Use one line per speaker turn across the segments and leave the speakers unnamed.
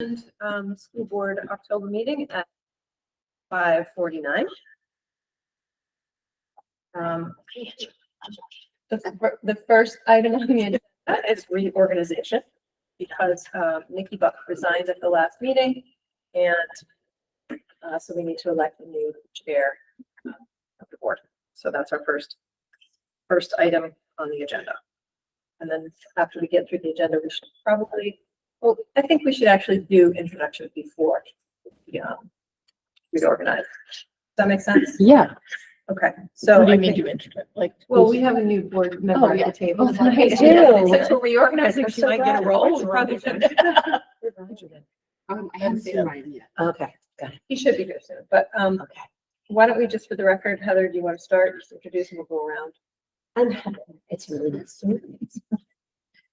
And, um, school board October meeting at five forty-nine. Um, the, fir- the first item on the agenda is reorganization because, um, Nikki Buck resigned at the last meeting and, uh, so we need to elect a new chair um, of the board. So that's our first, first item on the agenda. And then after we get through the agenda, we should probably well, I think we should actually do introduction before, we um we organize. Does that make sense?
Yeah.
Okay, so.
What do
I
you mean
think-
do intro? Like.
Well, we have a new
Oh,
board member at
yeah.
the table.
I do. Since we're reorganizing,
I'm
she
so
might get a
glad.
role.
What's wrong
Probably
with you?
should.
Um, I
haven't seen
mine yet.
Okay.
He should be here soon, but um,
Okay.
why don't we just for the record, Heather, do you want to start? Just introduce and we'll go around.
I'm Heather. It's really nice to meet you.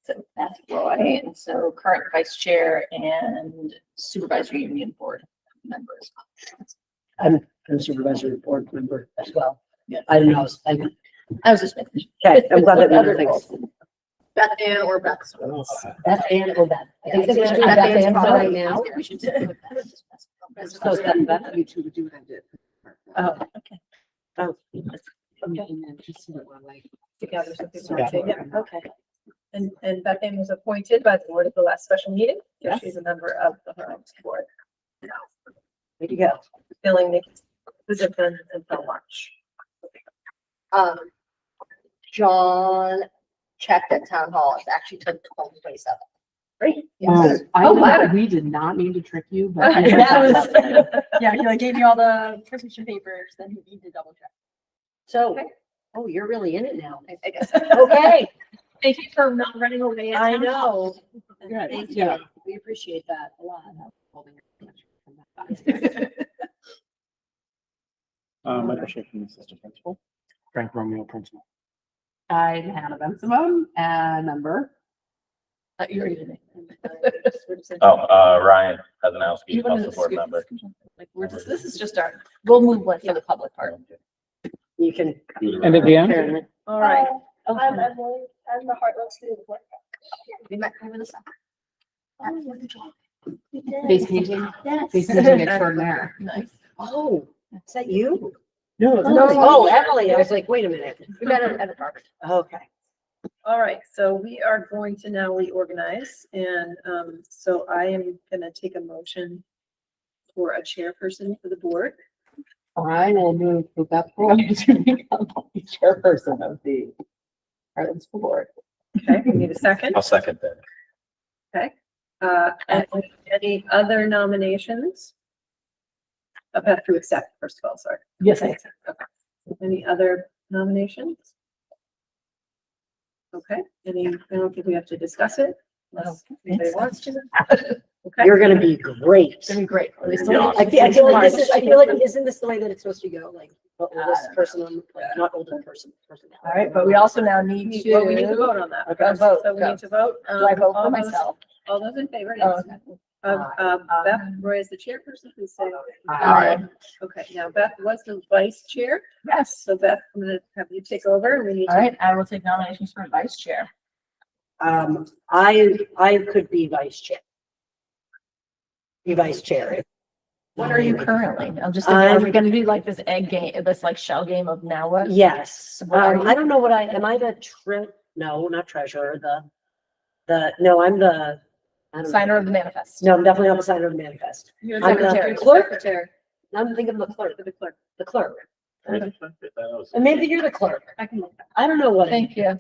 So that's Roy, and so current vice chair and supervisory union board members.
I'm, I'm supervisory board member as well.
Yeah.
I don't know. I was- I-
I was just making.
Okay, I'm glad that we
Other
were things.
roles. Beth Ann or Beth.
Beth Ann or Beth? I think
Yeah,
it's
Beth
Beth
Ann's
Ann
fine
right
right
now.
now.
We should do it. Beth.
So it's Beth, Beth.
You two do have it.
Oh,
Okay.
oh,
And then just sort of like-
Together, so people
Yeah.
can take it.
okay.
And and Beth Ann was appointed by the board at the last special meeting. so
Yes.
She's a member of the Homes Board,
Way to go.
filling Nikki's position until March.
um, John checked at town hall, it's actually took twenty twenty-seven.
Yes. I
Oh,
know
wow.
that Um, we did not mean to trick you, but.
That was-
That
Yeah, he like gave you all the prescription papers, then he needed to double check.
So,
Okay.
oh, you're really in it now.
I- I guess.
Okay,
Thank you for not running away. at
I
town
know.
hall.
Good,
Thank
yeah.
you. We appreciate that a lot.
Uh, Michael Schaefer, assistant principal. Frank Romeo, principal.
I'm Hannah Ben Simone, and number.
Uh, you already did it.
Oh, uh, Ryan Hazanowski,
You wanna
also board
scoot-
member.
scoot on? Like, we're just, this is just our, we'll move one for the public part.
You can.
And at the end,
All right.
Oh,
Okay.
Emily, I'm the Heartland student.
We met over the summer.
Face painting, face
Yes.
painting extraordinaire.
Nice.
Oh, is that you?
No, it's
No.
Oh, Emily, I was like, wait a minute.
We met at, at a park.
Okay.
All right, so we are going to now reorganize and um, so I am gonna take a motion for a chairperson for the board.
I will move for Beth Roy to become the chairperson of the Heartland School Board.
Okay, we need a second.
I'll second that.
Uh, and Any other nominations? I have to accept first of all, sorry.
Yes,
I accept. Okay. Any other nominations? Okay, any, I don't think we have to discuss it. unless anybody wants to. Okay.
You're gonna be great.
It's gonna be great. We still-
Yeah.
I feel, I feel like this is, I feel like, isn't this the way that it's supposed to go? Like, the oldest person, on- like, not older person. person.
All right, but we also now need to.
Well, we need to vote on that.
Okay,
first,
vote,
So we
go.
need to vote.
Do I
um,
vote
all
for
those-
myself?
All those in favor,
Oh,
yes. Of, um, Beth Roy is the chairperson, please say
Oh,
aye.
Uh,
Aye.
Okay, now Beth was the vice chair,
Yes.
so Beth, I'm gonna have you take over and we need
All
to.
right, I will take nominations for vice chair.
Um, I, I could be vice chair. Be vice chair.
What are you currently? I'm just,
I'm-
are we gonna do like this egg game, this like shell game of now what?
Yes,
What are
um,
you?
I don't know what I, am I the tre, no, not treasurer, the, the, no, I'm the. I don't know.
Signer of the manifest.
No, I'm definitely not the signer of the manifest.
You're
I'm
the
secretary.
clerk. Secretary.
I'm thinking of the clerk,
For the clerk.
the clerk. And
Aye.
maybe you're the clerk. I can, I don't know what. I-
Thank you.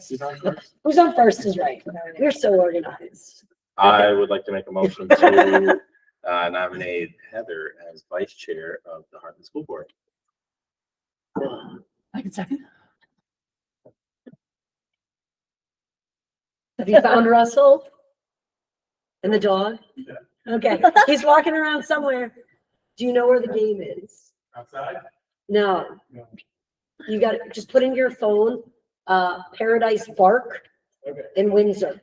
Who's on first is right. You're so organized.
I would like to make a motion to uh, nominate Heather as vice chair of the Heartland School Board.
I can second.
Have you found Russell? And the dog?
Yeah.
Okay, he's walking around somewhere. Do you know where the game is?
Outside?
No.
No.
You got, to just put in your phone, uh, Paradise Bark
Okay.
in Windsor.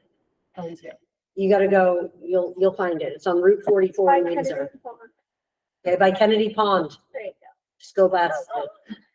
Oh, he's here.
You gotta go, you'll, you'll find it. It's on Route forty-four in Windsor. Okay, by Kennedy Pond.
There you
Just go past